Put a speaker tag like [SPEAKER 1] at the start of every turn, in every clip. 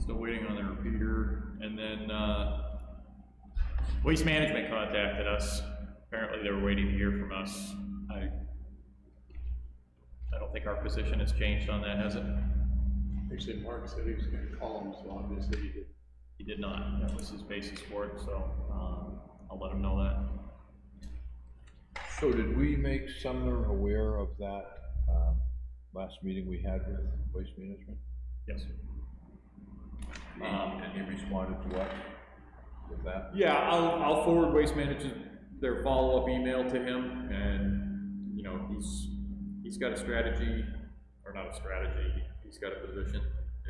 [SPEAKER 1] still waiting on the repeater, and then, uh, Waste Management contacted us, apparently they were waiting to hear from us. I, I don't think our position has changed on that, has it?
[SPEAKER 2] Actually, Mark said he was gonna call him, so obviously he did.
[SPEAKER 1] He did not, that was his basis for it, so, um, I'll let him know that.
[SPEAKER 3] So did we make Sumner aware of that, um, last meeting we had with Waste Management?
[SPEAKER 1] Yes. Um,
[SPEAKER 3] And he responded to us with that?
[SPEAKER 1] Yeah, I'll, I'll forward Waste Management their follow-up email to him, and, you know, he's, he's got a strategy, or not a strategy, he's got a position,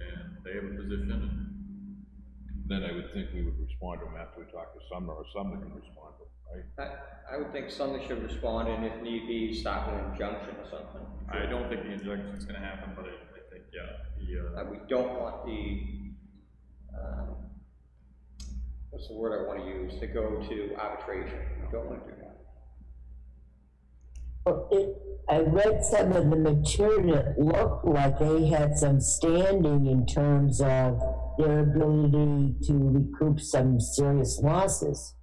[SPEAKER 1] and they have a position, and
[SPEAKER 3] Then I would think we would respond to him after we talk to Sumner, or Sumner can respond to him, right?
[SPEAKER 4] I, I would think something should respond, and if need be, stop an injunction or something.
[SPEAKER 1] I don't think the injunction's gonna happen, but I, I think, yeah, the, uh,
[SPEAKER 4] Uh, we don't want the, um, what's the word I wanna use, to go to arbitration, we don't wanna do that.
[SPEAKER 5] Well, it, I read some of the material, it looked like they had some standing in terms of their ability to recoup some serious losses.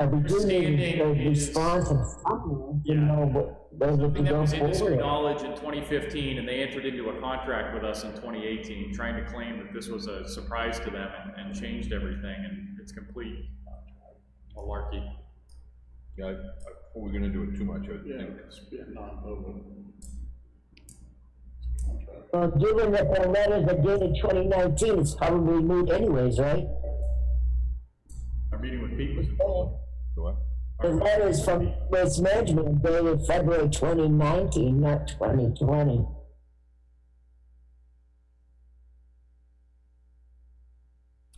[SPEAKER 5] And we do need a
[SPEAKER 1] Standing is-
[SPEAKER 5] response of something, you know, what, whether to
[SPEAKER 1] Something that
[SPEAKER 5] go
[SPEAKER 1] was industry
[SPEAKER 5] forward.
[SPEAKER 1] knowledge in 2015, and they entered into a contract with us in 2018, trying to claim that this was a surprise to them and, and changed everything, and it's complete malarkey.
[SPEAKER 3] Yeah, I, I, before we're gonna do it too much, I would think,
[SPEAKER 2] It's been non-public.
[SPEAKER 5] Well, given that the letter that dated twenty nineteen is probably moot anyways, right?
[SPEAKER 1] Our meeting with Pete was,
[SPEAKER 3] do I?
[SPEAKER 5] The letter is from Waste Management dated February twenty nineteen, not twenty twenty.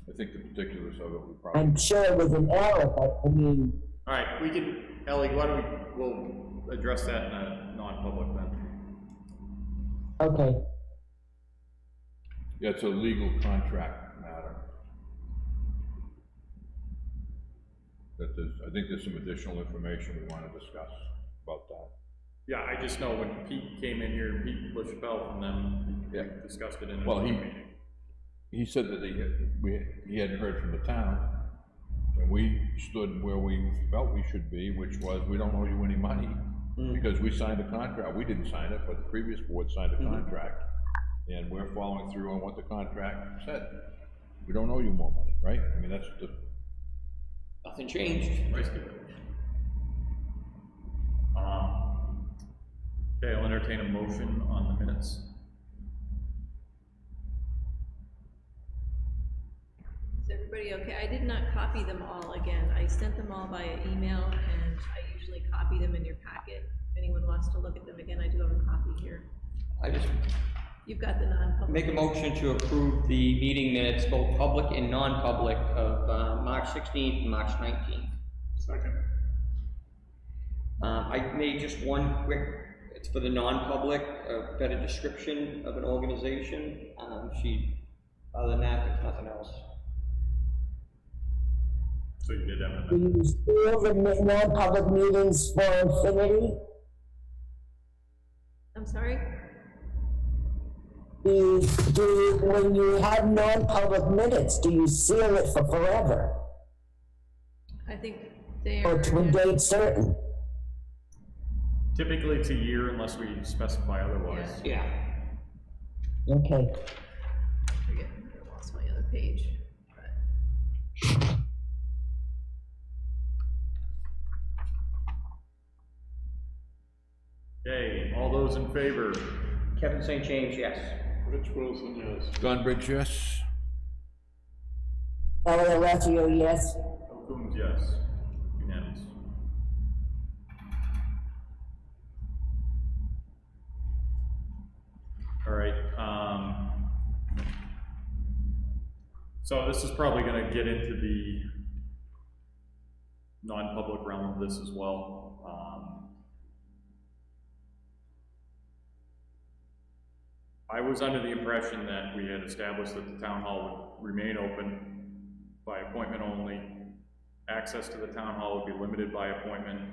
[SPEAKER 3] I think the particulars of it would probably,
[SPEAKER 5] I'm sure it was an error, but I mean,
[SPEAKER 1] all right, we can, Ellie, why don't we, we'll address that in a non-public then.
[SPEAKER 5] okay.
[SPEAKER 3] yeah, it's a legal contract matter. That there's, I think there's some additional information we wanna discuss about that.
[SPEAKER 1] Yeah, I just know when Pete came in here, Pete LaChapelle from them,
[SPEAKER 3] Yeah.
[SPEAKER 1] we discussed it in
[SPEAKER 3] Well,
[SPEAKER 1] another
[SPEAKER 3] he-
[SPEAKER 1] meeting.
[SPEAKER 3] he said that he, had- we, he hadn't heard from the town, and we stood where we felt we should be, which was, we don't owe you any money, because we signed a contract, we didn't sign it, but the previous board signed a contract, and we're following through on what the contract said. We don't owe you more money, right? I mean, that's the,
[SPEAKER 4] Nothing changed.
[SPEAKER 1] Um, Okay, I'll entertain a motion on the minutes.
[SPEAKER 6] Is everybody okay? I did not copy them all again. I sent them all via email, and I usually copy them in your packet. If anyone wants to look at them again, I do have a copy here.
[SPEAKER 4] I just
[SPEAKER 6] You've got the non-public.
[SPEAKER 4] make a motion to approve the meeting minutes, both public and non-public, of, uh, March sixteenth and March nineteenth.
[SPEAKER 2] Second.
[SPEAKER 4] Um, I made just one quick, it's for the non-public, a better description of an organization. Um, she, other than that, there's nothing else.
[SPEAKER 1] So you did that one.
[SPEAKER 5] Do you feel the mi- non-public meetings for infinity?
[SPEAKER 6] I'm sorry?
[SPEAKER 5] Do you, do you, when you have non-public minutes, do you seal it for forever?
[SPEAKER 6] I think they
[SPEAKER 4] Oh,
[SPEAKER 6] are.
[SPEAKER 5] Or to a date certain?
[SPEAKER 1] Typically, it's a year unless we specify otherwise.
[SPEAKER 4] Yeah.
[SPEAKER 5] Okay,
[SPEAKER 6] I forget, I lost my other page, but.
[SPEAKER 1] Okay, all those in favor?
[SPEAKER 4] Kevin St. James, yes.
[SPEAKER 2] Rich Wilson, yes.
[SPEAKER 3] John Bridge, yes?
[SPEAKER 5] Ellie Leffier, yes.
[SPEAKER 1] Bill Coombs, yes. Unanimous. All right, um, so this is probably gonna get into the non-public realm of this as well. Um, I was under the impression that we had established that the town hall would remain open by appointment only. Access to the town hall would be limited by appointment,